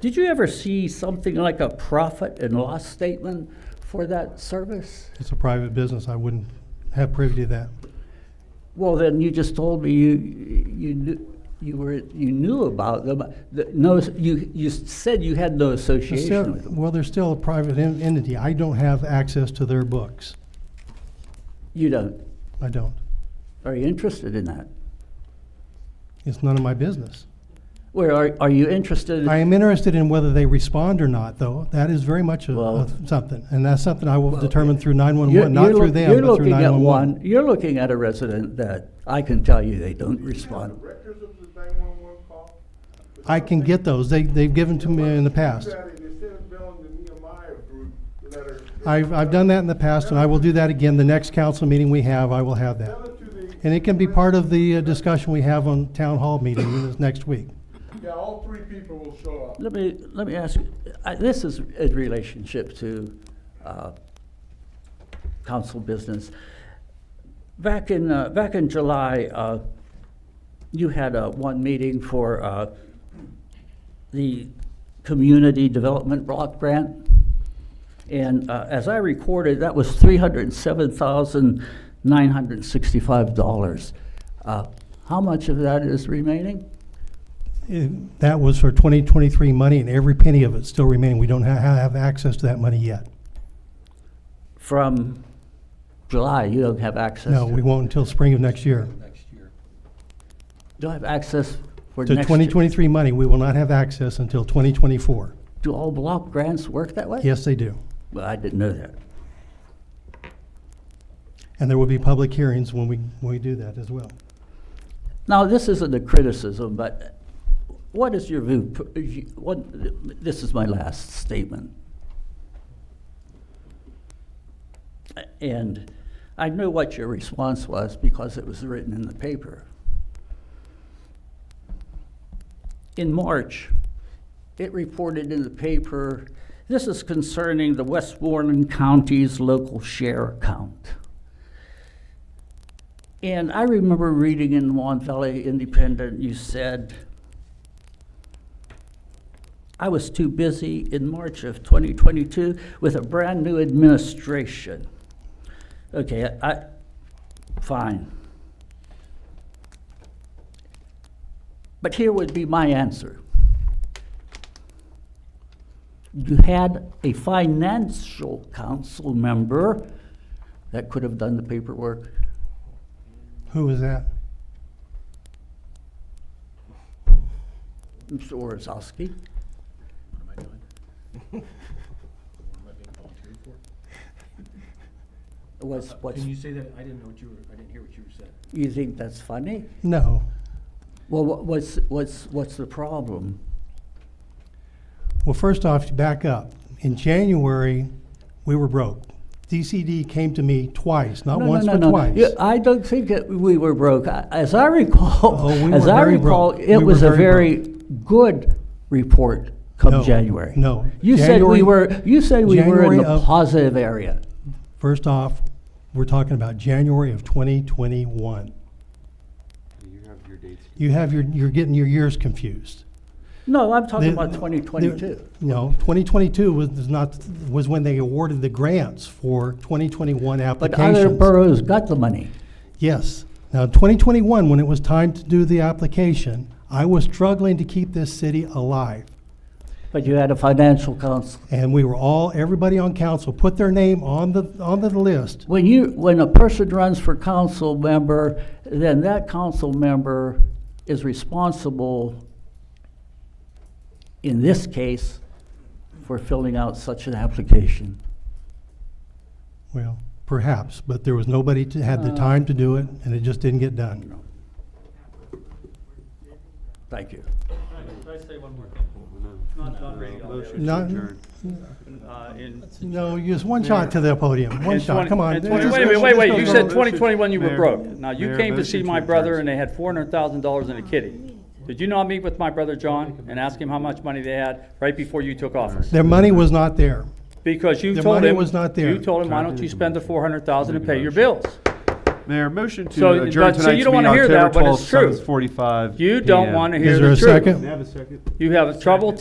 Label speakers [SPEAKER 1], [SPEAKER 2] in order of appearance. [SPEAKER 1] Did you ever see something like a profit and loss statement for that service?
[SPEAKER 2] It's a private business. I wouldn't have privy to that.
[SPEAKER 1] Well, then you just told me you, you, kn- you were, you knew about them. The- No, you, you said you had no
[SPEAKER 2] It's
[SPEAKER 1] association
[SPEAKER 2] still-
[SPEAKER 1] with them.
[SPEAKER 2] Well, they're still a private en- entity. I don't have access to their books.
[SPEAKER 1] You don't.
[SPEAKER 2] I don't.
[SPEAKER 1] Are you interested in that?
[SPEAKER 2] It's none of my business.
[SPEAKER 1] Where are, are you interested?
[SPEAKER 2] I am interested in whether they respond or not, though. That is very much a-
[SPEAKER 1] Well-
[SPEAKER 2] a something, and that's something I will determine through
[SPEAKER 1] You're-
[SPEAKER 2] 911, not
[SPEAKER 1] you're
[SPEAKER 2] through
[SPEAKER 1] look- you're
[SPEAKER 2] them, but through
[SPEAKER 1] looking at
[SPEAKER 2] 911.
[SPEAKER 1] one- You're looking at a resident that I can tell you they don't respond.
[SPEAKER 3] Records of the nine-one-one call?
[SPEAKER 2] I can get those. They, they've given to me in the
[SPEAKER 3] You
[SPEAKER 2] past.
[SPEAKER 3] got it, instead of billing the Nehemiah group letter.
[SPEAKER 2] I've, I've done that in the past, and I will do that again. The next council meeting we have, I will have that.
[SPEAKER 3] Sell it to the.
[SPEAKER 2] And it can be part of the uh, discussion we have on town hall meeting this next week.
[SPEAKER 3] Yeah, all three people will show up.
[SPEAKER 1] Let me, let me ask, you, I- this is in relationship to uh, council business. Back in, uh, back in July, uh, you had uh, one meeting for uh, the Community Development Block Grant. And uh, as I recorded, that was $307,965. Uh, How much of that is remaining?
[SPEAKER 2] It- That was for 2023 money, and every penny of it still remaining. We don't ha- have access to that money yet.
[SPEAKER 1] from July, you don't have access.
[SPEAKER 2] No,
[SPEAKER 1] to-
[SPEAKER 2] we won't until spring of next year.
[SPEAKER 1] Don't have access for
[SPEAKER 2] To
[SPEAKER 1] next year.
[SPEAKER 2] 2023 money, we will not have access until 2024.
[SPEAKER 1] Do all block grants work that way?
[SPEAKER 2] Yes, they do.
[SPEAKER 1] Well, I didn't know that.
[SPEAKER 2] And there will be public hearings when we, when we do that as well.
[SPEAKER 1] Now, this isn't a criticism, but what is your view, what, this is my last statement. And I knew what your response was because it was written in the paper. In March, it reported in the paper, this is concerning the Westmoreland County's local share account. And I remember reading in the Mon Valley Independent, you said, I was too busy in March of 2022 with a brand new administration. Okay, I, I- fine. But here would be my answer. You had a financial council member that could have done the paperwork.
[SPEAKER 2] Who is that?
[SPEAKER 1] Mr. Orzowski.
[SPEAKER 4] What am I doing? What am I being volunteered for?
[SPEAKER 2] Uh,
[SPEAKER 1] Was, was,
[SPEAKER 4] Can you say that, I didn't know what you were, I didn't hear what you said.
[SPEAKER 1] you think that's funny?
[SPEAKER 2] No.
[SPEAKER 1] Well, what, what's, what's, what's the problem?
[SPEAKER 2] Well, first off, back up. In January, we were broke. DCD came to me twice, not
[SPEAKER 1] No,
[SPEAKER 2] once,
[SPEAKER 1] no,
[SPEAKER 2] but
[SPEAKER 1] no, no.
[SPEAKER 2] twice.
[SPEAKER 1] Yeah, I don't think that we were broke. I- As I recall,
[SPEAKER 2] Oh, we
[SPEAKER 1] as
[SPEAKER 2] were
[SPEAKER 1] I
[SPEAKER 2] very
[SPEAKER 1] recall,
[SPEAKER 2] broke.
[SPEAKER 1] it
[SPEAKER 2] We
[SPEAKER 1] was
[SPEAKER 2] were
[SPEAKER 1] a
[SPEAKER 2] very
[SPEAKER 1] very good report
[SPEAKER 2] No,
[SPEAKER 1] come January.
[SPEAKER 2] no.
[SPEAKER 1] You said we
[SPEAKER 2] January-
[SPEAKER 1] were, you said we were in
[SPEAKER 2] January
[SPEAKER 1] the
[SPEAKER 2] of-
[SPEAKER 1] positive area.
[SPEAKER 2] First off, we're talking about January of 2021.
[SPEAKER 4] You have your dates.
[SPEAKER 2] You have your, you're getting your years confused.
[SPEAKER 1] No, I'm talking
[SPEAKER 2] The-
[SPEAKER 1] about twenty twenty-two.
[SPEAKER 2] the- No, 2022 was is not, was when they awarded the grants for 2021
[SPEAKER 1] But other
[SPEAKER 2] applications.
[SPEAKER 1] boroughs got the money.
[SPEAKER 2] Yes. Now, 2021, when it was time to do the application, I was struggling to keep this city alive.
[SPEAKER 1] But you had a financial council.
[SPEAKER 2] And we were all, everybody on council put their name on the, on the list.
[SPEAKER 1] When you, when a person runs for council member, then that council member is responsible, in this case, for filling out such an application.
[SPEAKER 2] Well, perhaps, but there was nobody to, had the
[SPEAKER 1] Uh.
[SPEAKER 2] time to do it, and it just didn't get done.
[SPEAKER 1] Thank you.
[SPEAKER 5] Can I say one more thing? Not, not really all the
[SPEAKER 2] Not,
[SPEAKER 5] other. Uh, in-
[SPEAKER 2] no, just one shot to the podium, one
[SPEAKER 5] in
[SPEAKER 2] shot,
[SPEAKER 5] 20
[SPEAKER 2] come on.
[SPEAKER 5] in
[SPEAKER 2] Let's
[SPEAKER 5] 20
[SPEAKER 2] just-
[SPEAKER 5] Wait a minute,
[SPEAKER 2] let's
[SPEAKER 5] wait,
[SPEAKER 2] just
[SPEAKER 5] wait,
[SPEAKER 2] go
[SPEAKER 5] you
[SPEAKER 2] to
[SPEAKER 5] said
[SPEAKER 2] the-
[SPEAKER 5] twenty twenty-one you were
[SPEAKER 6] Mayor,
[SPEAKER 5] broke. Now, you
[SPEAKER 6] Mayor,
[SPEAKER 5] came to
[SPEAKER 6] those
[SPEAKER 5] see
[SPEAKER 6] are
[SPEAKER 5] my
[SPEAKER 6] two
[SPEAKER 5] brother
[SPEAKER 6] terms.
[SPEAKER 5] and they had four hundred thousand dollars in a kitty. Did you not meet with my brother John and ask him how much money they had right before you took office?
[SPEAKER 2] Their money was not there.
[SPEAKER 5] Because you
[SPEAKER 2] The
[SPEAKER 5] told
[SPEAKER 2] money
[SPEAKER 5] him,
[SPEAKER 2] was not there.
[SPEAKER 5] you told him, why don't you spend the four hundred thousand and pay your bills?
[SPEAKER 6] Mayor, motion
[SPEAKER 5] So,
[SPEAKER 6] to adjourn
[SPEAKER 5] but- so you
[SPEAKER 6] tonight's
[SPEAKER 5] don't
[SPEAKER 6] meeting
[SPEAKER 5] wanna hear that,
[SPEAKER 6] October
[SPEAKER 5] but
[SPEAKER 6] twelfth,
[SPEAKER 5] it's true.
[SPEAKER 6] seven forty-five.
[SPEAKER 5] You don't wanna hear
[SPEAKER 2] Is there
[SPEAKER 5] the
[SPEAKER 2] a
[SPEAKER 5] truth.
[SPEAKER 2] second?
[SPEAKER 6] Have a second.
[SPEAKER 5] You have trouble